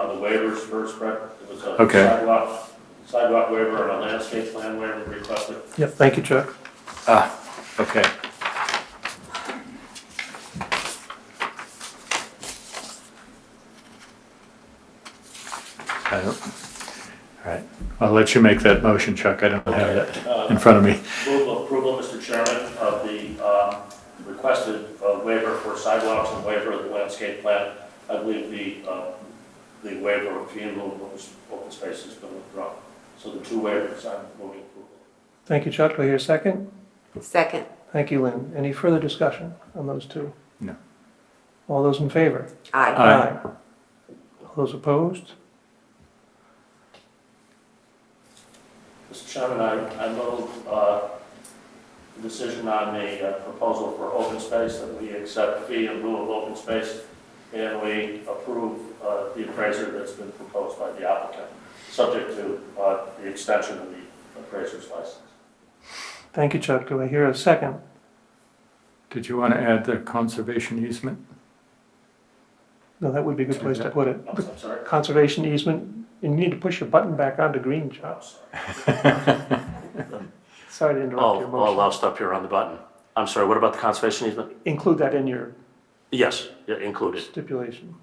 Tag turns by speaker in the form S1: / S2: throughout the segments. S1: Uh, waivers first, Brett. It was a
S2: Okay.
S1: sidewalk, sidewalk waiver and a landscape plan waiver requested.
S3: Yep, thank you, Chuck.
S2: Ah, okay. I don't, all right, I'll let you make that motion, Chuck, I don't have
S1: Okay,
S2: that
S1: uh,
S2: in front of me.
S1: Approval, approval, Mr. Chairman, of the um, requested uh, waiver for sidewalks and waiver of the landscape plan. I believe the, uh, the waiver of fee and open open space has been withdrawn. So the two waivers, I'm moving approval.
S3: Thank you, Chuck. Do I hear a second?
S4: Second.
S3: Thank you, Lynn. Any further discussion on those two?
S2: No.
S3: All those in favor? Uh,
S4: Aye.
S2: Aye.
S3: All those opposed?
S1: Mr. Chairman, I, I move, uh, the decision on the uh, proposal for open space, that we accept fee in lieu of open space, and we approve, uh, the appraiser that's been proposed by the applicant, subject to, uh, the extension of the appraiser's license.
S3: Thank you, Chuck. Do I hear a second?
S2: Did you want to add the conservation easement?
S3: No, that would be a good place to put it.
S1: I'm I'm sorry,
S3: Conservation easement, and you need to push your button back onto green, Chuck.
S1: I'm sorry.
S3: Sorry to
S1: Oh,
S3: interrupt your
S5: All, all
S3: motion.
S5: loused up here on the button. I'm sorry, what about the conservation
S1: oh.
S5: easement?
S3: Include that in your
S5: Yes, yeah, included.
S3: stipulation.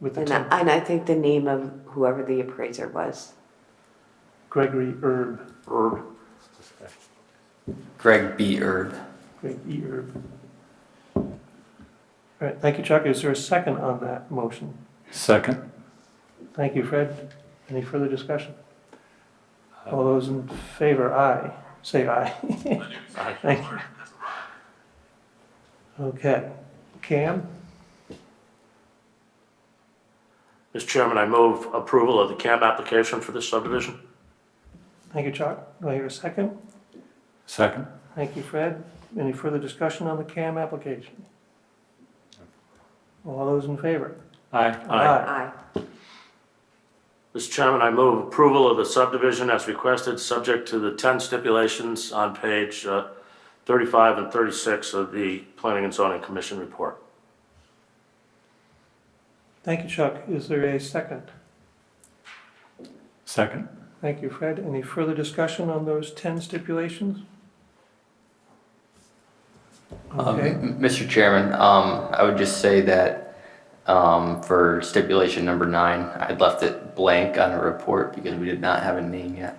S3: With the
S4: And
S3: ten-
S4: I, and I think the name of whoever the appraiser was.
S3: Gregory Erb,
S5: Or
S6: Greg B. Erb.
S3: Greg E. Erb. All right, thank you, Chuck. Is there a second on that motion?
S2: Second?
S3: Thank you, Fred. Any further discussion? All those in favor, aye. Say aye.
S5: Aye.
S3: Thank you. Okay. Cam,
S5: Mr. Chairman, I move approval of the CAM application for this subdivision.
S3: thank you, Chuck. Do I hear a second?
S2: Second?
S3: Thank you, Fred. Any further discussion on the CAM application? All those in favor?
S2: Aye.
S4: Aye.
S5: Mr. Chairman, I move approval of the subdivision as requested, subject to the 10 stipulations on page uh, 35 and 36 of the Planning and Zoning Commission report.
S3: Thank you, Chuck. Is there a second?
S2: Second?
S3: Thank you, Fred. Any further discussion on those 10 stipulations?
S6: Um,
S3: Okay.
S6: M- Mr. Chairman, um, I would just say that, um, for stipulation number nine, I left it blank on a report because we did not have a name yet.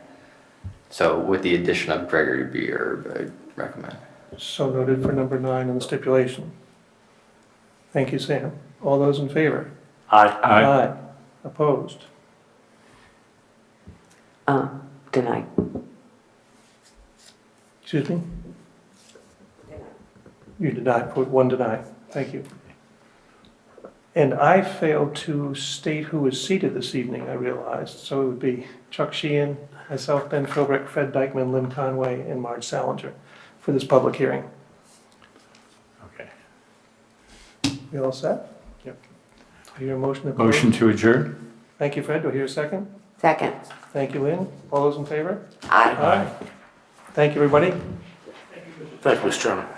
S6: So with the addition of Gregory B. Erb, I recommend.
S3: So noted for number nine on the stipulation. Thank you, Sam. All those in favor?
S5: Aye.
S2: Aye.
S3: Opposed?
S4: Um, denied.
S3: Excuse me? You denied, put one denied. Thank you. And I failed to state who is seated this evening, I realized. So it would be Chuck Sheehan, myself, Ben Philbrick, Fred Dykman, Lynn Conway, and Marge Salinger for this public hearing.
S2: Okay.
S3: We all set?
S2: Yep.
S3: Do I hear a motion to close?
S2: Motion to adjourn?
S3: Thank you, Fred. Do I hear a second?
S4: Second.
S3: Thank you, Lynn. All those in favor?
S4: Aye.
S3: Thank you, everybody.
S5: Thank you, Mr. Chairman.